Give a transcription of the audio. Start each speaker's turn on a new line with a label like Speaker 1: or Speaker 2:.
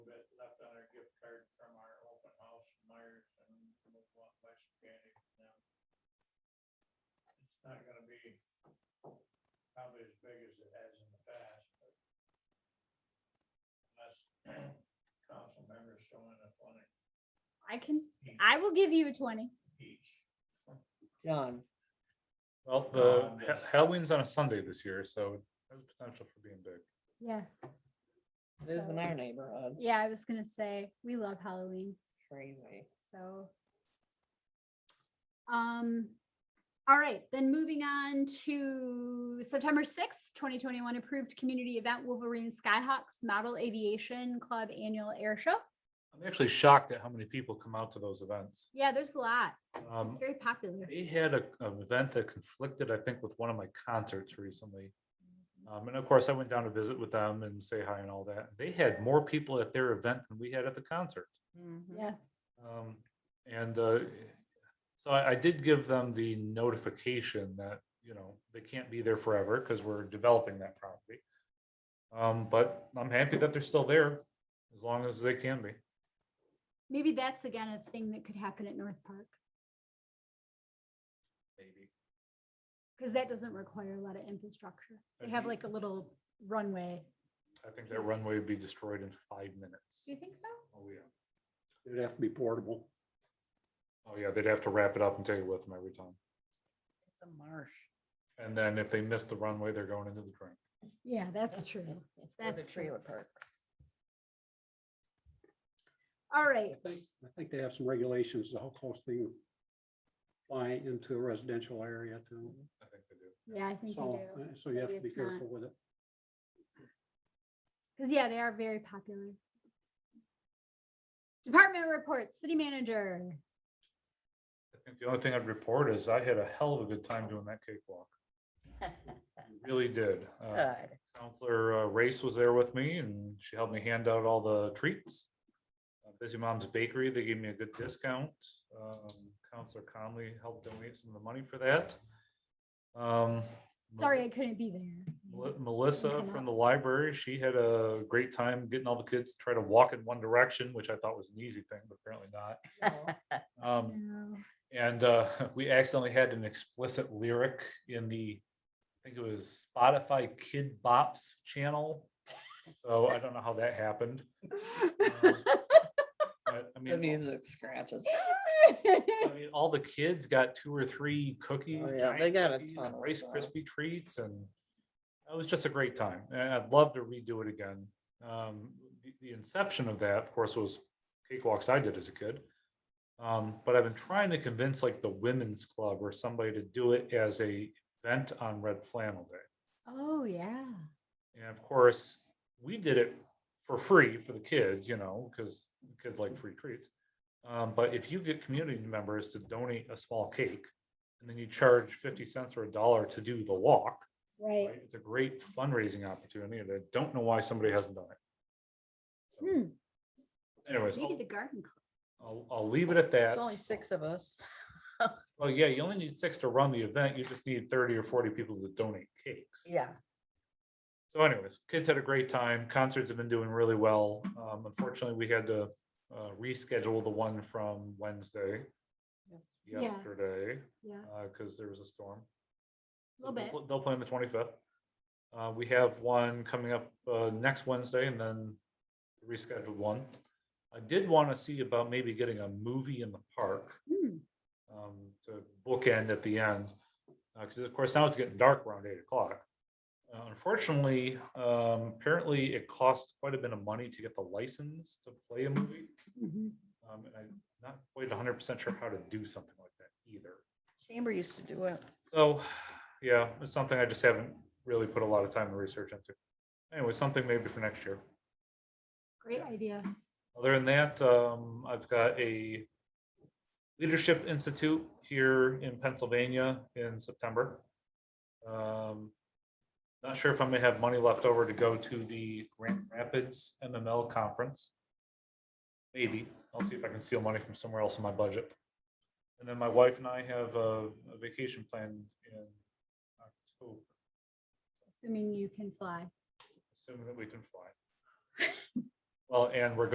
Speaker 1: It's not gonna be probably as big as it has in the past, but unless council members fill in a twenty
Speaker 2: I can, I will give you a twenty.
Speaker 1: each.
Speaker 3: John,
Speaker 4: Well,
Speaker 1: Um,
Speaker 4: the
Speaker 1: yes.
Speaker 4: Ha- Halloween's on a Sunday this year, so there's potential for being big.
Speaker 2: Yeah.
Speaker 3: it is in
Speaker 2: So-
Speaker 3: our neighborhood.
Speaker 2: Yeah, I was gonna say, we love Halloween,
Speaker 3: It's crazy.
Speaker 2: so. Um, all right, then moving on to September sixth, twenty twenty-one approved community event Wolverine Skyhawks Model Aviation Club Annual Air Show.
Speaker 4: I'm actually shocked at how many people come out to those events.
Speaker 2: Yeah, there's a lot. It's
Speaker 4: Um,
Speaker 2: very popular.
Speaker 4: They had a, an event that conflicted, I think, with one of my concerts recently. Um, and of course, I went down to visit with them and say hi and all that. They had more people at their event than we had at the concert.
Speaker 3: Mm-hmm.
Speaker 2: Yeah.
Speaker 4: Um, and, uh, so I, I did give them the notification that, you know, they can't be there forever because we're developing that property. Um, but I'm happy that they're still there as long as they can be.
Speaker 2: Maybe that's again a thing that could happen at North Park,
Speaker 4: Maybe.
Speaker 2: because that doesn't require a lot of infrastructure. They
Speaker 4: That'd
Speaker 2: have
Speaker 4: be-
Speaker 2: like a little runway.
Speaker 4: I think that runway would be destroyed in five minutes.
Speaker 2: Do you think so?
Speaker 4: Oh, yeah.
Speaker 5: It'd have to be portable.
Speaker 4: Oh, yeah, they'd have to wrap it up and take it with them every time.
Speaker 3: It's a marsh.
Speaker 4: And then if they miss the runway, they're going into the drink.
Speaker 2: Yeah, that's true.
Speaker 3: Or the
Speaker 2: That's true.
Speaker 3: trailer park.
Speaker 2: All
Speaker 5: I
Speaker 2: right.
Speaker 5: think, I think they have some regulations to how close they can fly into a residential area too.
Speaker 4: I think they do.
Speaker 2: Yeah, I think they
Speaker 5: So,
Speaker 2: do.
Speaker 5: uh, so you have
Speaker 2: Maybe
Speaker 5: to be
Speaker 2: it's not.
Speaker 5: careful with it.
Speaker 2: Because yeah, they are very popular. Department reports, city manager.
Speaker 4: I think the only thing I'd report is I had a hell of a good time doing that cakewalk. I Really did.
Speaker 2: Oh.
Speaker 4: Uh,
Speaker 3: Good.
Speaker 4: Counselor uh, Race was there with me and she helped me hand out all the treats. Uh, Busy Moms Bakery, they gave me a good discount. Um, Counselor Conley helped donate some of the money for that. Um,
Speaker 2: Sorry, I couldn't be there.
Speaker 4: Mel- Melissa
Speaker 2: come
Speaker 4: from
Speaker 2: up.
Speaker 4: the library, she had a great time getting all the kids to try to walk in one direction, which I thought was an easy thing, but apparently not. Um,
Speaker 2: No.
Speaker 4: and uh, we accidentally had an explicit lyric in the, I think it was Spotify Kid Bops channel. So I don't know how that happened. Um, But I
Speaker 3: The
Speaker 4: mean,
Speaker 3: music scratches.
Speaker 4: I mean, all the kids got two or three cookies.
Speaker 3: Oh, yeah,
Speaker 4: giant
Speaker 3: they got a
Speaker 4: cookies
Speaker 3: ton
Speaker 4: and
Speaker 3: of
Speaker 4: Rice
Speaker 3: stuff.
Speaker 4: Krispie treats and it was just a great time. And I'd love to redo it again. Um, the, the inception of that, of course, was cakewalks I did as a kid. Um, but I've been trying to convince like the women's club or somebody to do it as a event on Red Flannel Day.
Speaker 2: Oh, yeah.
Speaker 4: And of course, we did it for free for the kids, you know, because kids like free treats. Um, but if you get community members to donate a small cake and then you charge fifty cents or a dollar to do the walk,
Speaker 2: Right.
Speaker 4: right, it's a great fundraising opportunity. And I don't know why somebody hasn't done it.
Speaker 2: Hmm,
Speaker 4: So Anyways,
Speaker 2: Maybe
Speaker 4: I'll,
Speaker 2: the garden. club.
Speaker 4: I'll, I'll leave it at that.
Speaker 3: It's only six of us.
Speaker 4: Well, yeah, you only need six to run the event. You just need thirty or forty people to donate cakes.
Speaker 3: Yeah.
Speaker 4: So anyways, kids had a great time. Concerts have been doing really well. Um, unfortunately, we had to uh, reschedule the one from Wednesday
Speaker 2: Yeah.
Speaker 4: yesterday
Speaker 2: Yeah,
Speaker 4: because there was a storm. So
Speaker 2: Little
Speaker 4: they'll
Speaker 2: bit.
Speaker 4: pl- They'll play on the twenty-fifth. Uh, we have one coming up uh, next Wednesday and then rescheduled one. I did want to see about maybe getting a movie in the park
Speaker 2: Hmm,
Speaker 4: um, to bookend at the end. Because of course now it's getting dark around eight o'clock. Uh, Unfortunately, um, apparently it costs quite a bit of money to get the license to play a movie.
Speaker 2: mhm.
Speaker 4: Um, and I'm not quite hundred percent sure how to do something like that either.
Speaker 3: Chamber used to do it.
Speaker 4: So, yeah, it's something I just haven't really put a lot of time and research into. Anyway, something maybe for next year.
Speaker 2: Great idea.
Speaker 4: Other than that, um, I've got a leadership institute here in Pennsylvania in September. Um, not sure if I'm gonna have money left over to go to the Grand Rapids MML conference. Maybe, I'll see if I can steal money from somewhere else in my budget. And then my wife and I have a a vacation planned in October,
Speaker 2: Assuming you can fly.
Speaker 4: assuming that we can fly. Well, and we're